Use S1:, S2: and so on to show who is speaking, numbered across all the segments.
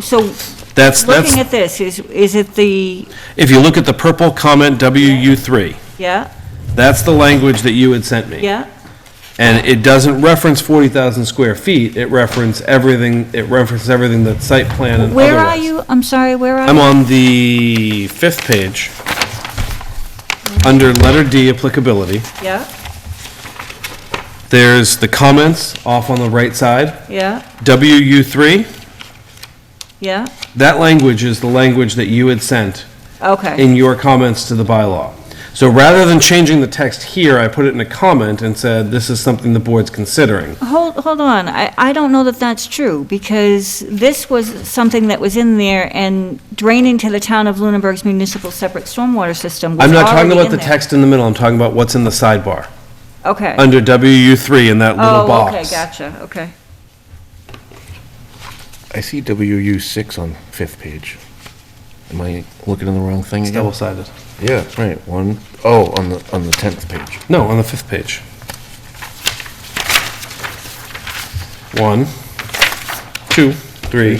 S1: So,
S2: That's, that's,
S1: looking at this, is, is it the,
S2: if you look at the purple comment WU3,
S1: yeah,
S2: that's the language that you had sent me.
S1: yeah?
S2: And it doesn't reference 40,000 square feet, it references everything, it references everything that site plan and
S1: Where are
S2: otherwise.
S1: you? I'm sorry, where are you?
S2: I'm on the fifth page, under letter D applicability.
S1: Yeah,
S2: There's the comments off on the right side,
S1: yeah,
S2: WU3.
S1: yeah,
S2: That language is the language that you had sent
S1: okay,
S2: in your comments to the bylaw. So rather than changing the text here, I put it in a comment and said, this is something the board's considering.
S1: hold, hold on, I, I don't know that that's true, because this was something that was in there, and draining to the town of Lunenburg's municipal separate stormwater system was
S2: I'm not talking
S1: already
S2: about
S1: in
S2: the
S1: there.
S2: text in the middle, I'm talking about what's in the sidebar,
S1: Okay.
S2: under WU3 in that little
S1: Oh, okay,
S2: box.
S1: gotcha, okay.
S3: I see WU six on fifth page. Am I looking in the wrong thing
S2: It's
S3: again?
S2: double-sided.
S3: Yeah, that's right, one, oh, on the, on the tenth page.
S2: No, on the fifth page. One, two, three,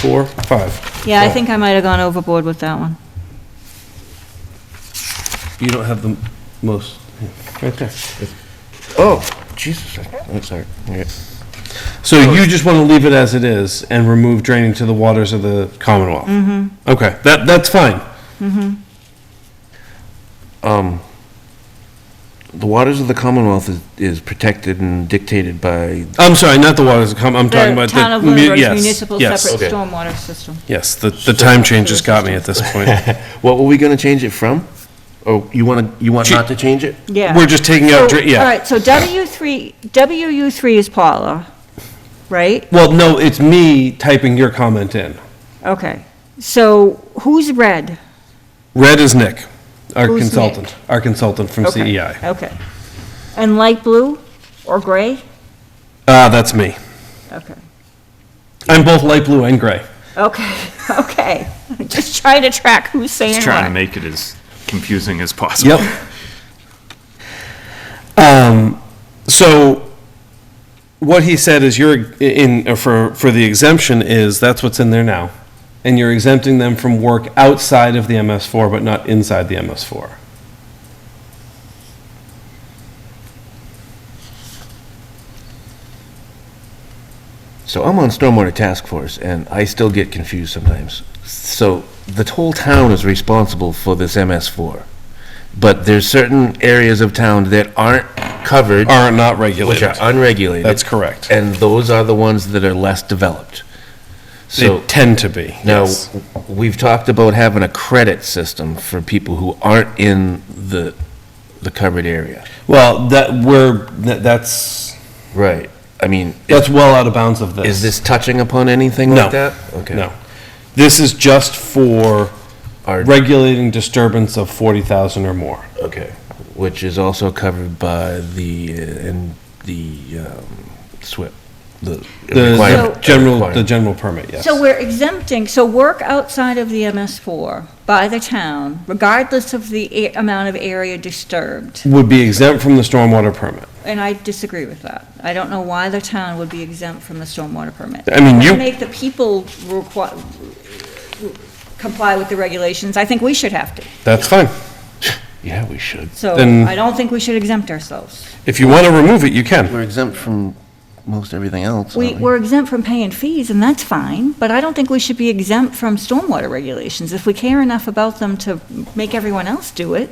S2: four, five.
S1: Yeah, I
S2: Oh.
S1: think I might have gone overboard with that one.
S2: You don't have the most, right there.
S3: Oh, Jesus, I- I'm sorry. Yeah.
S2: So you just want to leave it as it is and remove draining to the waters of the Commonwealth? Mm-hmm. Okay, that, that's fine.
S3: The waters of the Commonwealth is, is protected and dictated by,
S2: I'm sorry, not the waters of Com, I'm talking about the.
S1: Town of
S2: mu-
S1: Lunenburg's
S2: yes,
S1: municipal
S2: yes,
S1: separate
S3: Okay.
S1: stormwater system.
S2: Yes, the, the time change has got me at this point.
S3: what were we gonna change it from? Oh, you wanna, you want
S2: Chi-
S3: not to change it?
S1: Yeah.
S2: We're just taking out, dra-
S1: So, All
S2: yeah.
S1: right, so W3, WU3 is Paula, right?
S2: Well, no, it's me typing your comment in.
S1: Okay. So who's red?
S2: Red is Nick, our
S1: Who's Nick?
S2: consultant, our consultant from E
S1: Okay,
S4: E
S2: CEI.
S1: Okay. And light blue or gray?
S2: Ah, that's me.
S1: Okay.
S2: I'm both light blue and gray.
S1: Okay, okay. Just trying to track who's saying
S4: Just trying to
S1: what.
S4: make it as confusing as possible.
S2: Yep. Um, so what he said is you're in, uh, for, for the exemption is, that's what's in there now. And you're exempting them from work outside of the MS4, but not inside the MS4.
S3: So I'm on Stormwater Task Force, and I still get confused sometimes. So the whole town is responsible for this MS4, but there's certain areas of town that aren't covered,
S2: Are not
S3: which
S2: regulated.
S3: are unregulated.
S2: That's correct.
S3: And those are the ones that are less developed.
S2: They
S3: So
S2: tend to be.
S3: now,
S2: yes.
S3: we've talked about having a credit system for people who aren't in the, the covered area.
S2: Well, that, we're, that- that's,
S3: Right. I mean,
S2: that's well out of bounds of this.
S3: is this touching upon anything
S2: No.
S3: like that? Okay.
S2: No. This is just for
S3: Our-
S2: regulating disturbance of 40,000 or more.
S3: Okay. Which is also covered by the, uh, and the um, SWIP. The
S2: The-
S3: requirement-
S2: The general, the
S3: requirement.
S2: general permit, yes.
S1: So we're exempting, so work outside of the MS4 by the town, regardless of the a- amount of area disturbed.
S2: Would be exempt from the stormwater permit.
S1: And I disagree with that. I don't know why the town would be exempt from the stormwater permit.
S2: I mean, you-
S1: If we Make the people requi- comply with the regulations, I think we should have to.
S2: That's fine.
S3: Yeah, we should.
S1: So
S2: Then-
S1: I don't think we should exempt ourselves.
S2: If you want to remove it, you can.
S3: We're exempt from most everything else.
S1: We,
S3: aren't
S1: we're exempt from paying fees, and that's fine, but I don't think we should be exempt from stormwater regulations. If we care enough about them to make everyone else do it,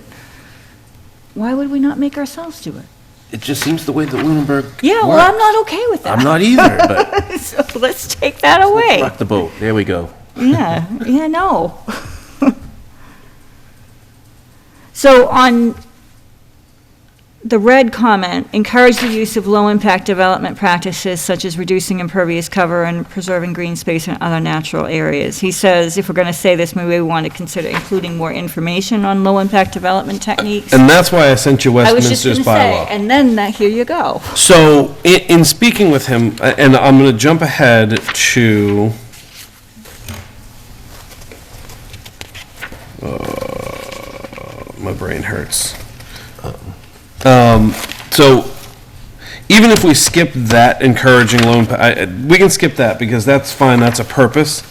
S1: why would we not make ourselves do it?
S3: It just seems the way that Lunenburg.
S1: Yeah, well, I'm not okay with that.
S3: I'm not either, but
S1: So let's take that away.
S3: rock the boat. There we go.
S1: Yeah, yeah, no. So on the red comment, encourage the use of low-impact development practices such as reducing impervious cover and preserving green space and other natural areas. He says, if we're going to say this, maybe we want to consider including more information on low-impact development techniques.
S2: And that's why I sent you
S1: I was just going
S2: Westminster's
S1: to say,
S2: bylaw.
S1: and then that, here you go.
S2: So in, in speaking with him, a- and I'm going to jump ahead to. Uh, My brain hurts. Um, so even if we skip that encouraging loan, pa- I- I- we can skip that because that's fine, that's a purpose.